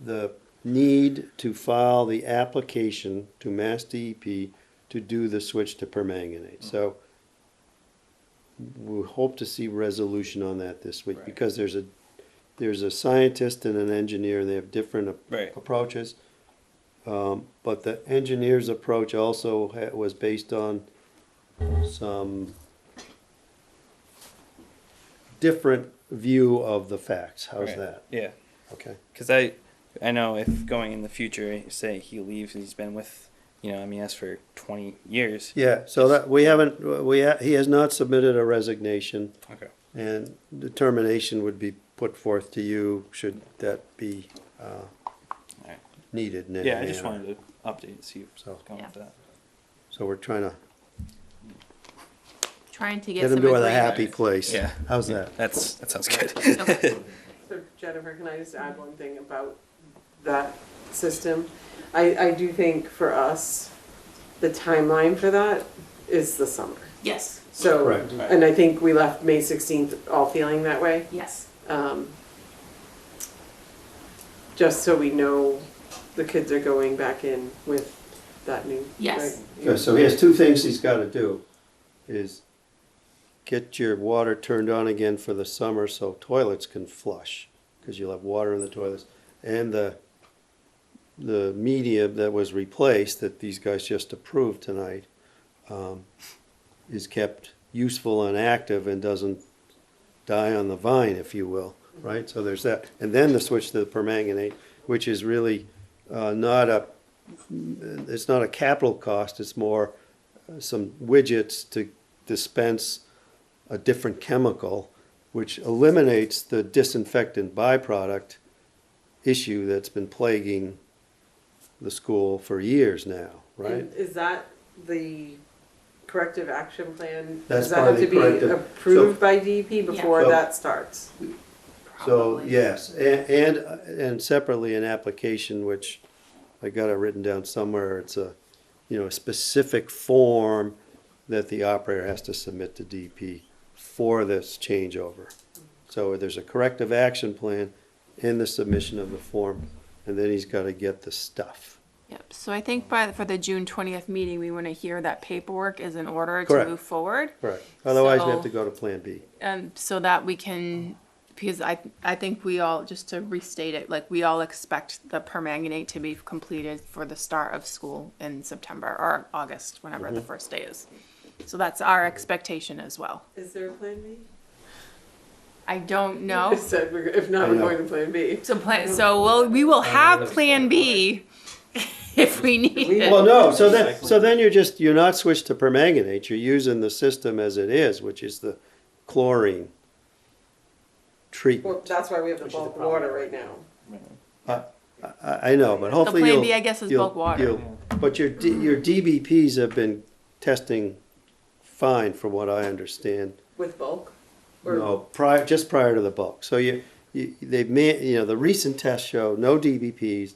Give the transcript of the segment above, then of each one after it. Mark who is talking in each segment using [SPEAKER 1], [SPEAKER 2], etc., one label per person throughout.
[SPEAKER 1] the need to file the application to Mass DEP to do the switch to permanganate. So we hope to see resolution on that this week
[SPEAKER 2] Right.
[SPEAKER 1] because there's a, there's a scientist and an engineer and they have different ap-
[SPEAKER 2] Right.
[SPEAKER 1] approaches. Um, but the engineer's approach also ha- was based on some different view of the facts. How's
[SPEAKER 2] Right.
[SPEAKER 1] that?
[SPEAKER 2] Yeah,
[SPEAKER 1] Okay.
[SPEAKER 2] because I, I know if going in the future, say he leaves, he's been with, you know, MES for twenty years.
[SPEAKER 1] Yeah, so that, we haven't, we, ha- he has not submitted a resignation,
[SPEAKER 2] Okay.
[SPEAKER 1] and determination would be put forth to you should that be uh,
[SPEAKER 2] Alright.
[SPEAKER 1] needed in any
[SPEAKER 2] Yeah, I just
[SPEAKER 1] manner.
[SPEAKER 2] wanted to update and see what's
[SPEAKER 1] So-
[SPEAKER 2] going on with
[SPEAKER 3] Yeah.
[SPEAKER 2] that.
[SPEAKER 1] So we're trying to
[SPEAKER 3] Trying to get
[SPEAKER 1] get
[SPEAKER 3] some
[SPEAKER 1] him to a
[SPEAKER 3] agreement.
[SPEAKER 1] happy place.
[SPEAKER 2] Yeah.
[SPEAKER 1] How's that?
[SPEAKER 2] That's that sounds good.
[SPEAKER 3] Okay.
[SPEAKER 4] So Jennifer, can I just add one thing about that system? I, I do think for us, the timeline for that is the summer.
[SPEAKER 3] Yes,
[SPEAKER 4] So,
[SPEAKER 1] Correct.
[SPEAKER 4] and I think we left May 16th all feeling that way.
[SPEAKER 3] yes.
[SPEAKER 4] Um, Just so we know the kids are going back in with that new.
[SPEAKER 3] Yes.
[SPEAKER 4] right?
[SPEAKER 1] Okay, so he has two things he's got to do, is get your water turned on again for the summer so toilets can flush, because you'll have water in the toilets, and the, the media that was replaced, that these guys just approved tonight, um, is kept useful and active and doesn't die on the vine, if you will, right? So there's that. And then the switch to the permanganate, which is really uh, not a it's not a capital cost, it's more uh, some widgets to dispense a different chemical, which eliminates the disinfectant byproduct issue that's been plaguing the school for years now, right?
[SPEAKER 4] And Is that the corrective action plan?
[SPEAKER 1] That's
[SPEAKER 4] Does that
[SPEAKER 1] part of
[SPEAKER 4] have to
[SPEAKER 1] the
[SPEAKER 4] be
[SPEAKER 1] corrective- so-
[SPEAKER 4] approved by DEP before
[SPEAKER 1] So-
[SPEAKER 4] that starts?
[SPEAKER 1] So,
[SPEAKER 3] Probably.
[SPEAKER 1] yes, and, and, and separately, an application which I got it written down somewhere, it's a, you know, a specific form that the operator has to submit to DP for this changeover. So there's a corrective action plan in the submission of the form, and then he's gotta get the stuff.
[SPEAKER 3] Yep, so I think by, for the June twentieth meeting, we wanna hear that paperwork is in order to
[SPEAKER 1] Correct.
[SPEAKER 3] move forward.
[SPEAKER 1] Correct. Otherwise, we have
[SPEAKER 3] So-
[SPEAKER 1] to go to Plan B.
[SPEAKER 3] Um, so that we can, because I, I think we all, just to restate it, like, we all expect the permanganate to be completed for the start of school in September or August, whenever
[SPEAKER 1] Mm-hmm.
[SPEAKER 3] the first day is. So that's our expectation as well.
[SPEAKER 4] Is there a plan B?
[SPEAKER 3] I don't
[SPEAKER 4] I
[SPEAKER 3] know.
[SPEAKER 4] said, we're- if not,
[SPEAKER 1] I
[SPEAKER 4] we're
[SPEAKER 1] know.
[SPEAKER 4] going to plan B.
[SPEAKER 3] So plan, so we'll, we will have Plan B if we need
[SPEAKER 4] We-
[SPEAKER 3] it.
[SPEAKER 1] Well, no, so then, so then you're just, you're not switched to permanganate, you're using the system as it is, which is the chlorine
[SPEAKER 4] Well,
[SPEAKER 1] treatment.
[SPEAKER 4] that's why we have the
[SPEAKER 2] Which is the
[SPEAKER 4] bulk
[SPEAKER 2] problem.
[SPEAKER 4] water right now.
[SPEAKER 1] I, I know, but hopefully
[SPEAKER 3] plan
[SPEAKER 1] you'll.
[SPEAKER 3] B, I guess, is
[SPEAKER 1] you'll-
[SPEAKER 3] bulk water.
[SPEAKER 1] you'll- But your, D- your DBPs have been testing fine, from what I understand.
[SPEAKER 4] With bulk? Or-
[SPEAKER 1] No, prior, just prior to the bulk. So you, you, they've made, you know, the recent tests show no DBPs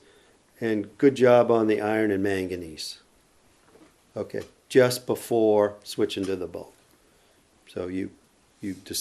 [SPEAKER 1] and good job on the iron and manganese. Okay, just before switching to the bulk. So you, you decide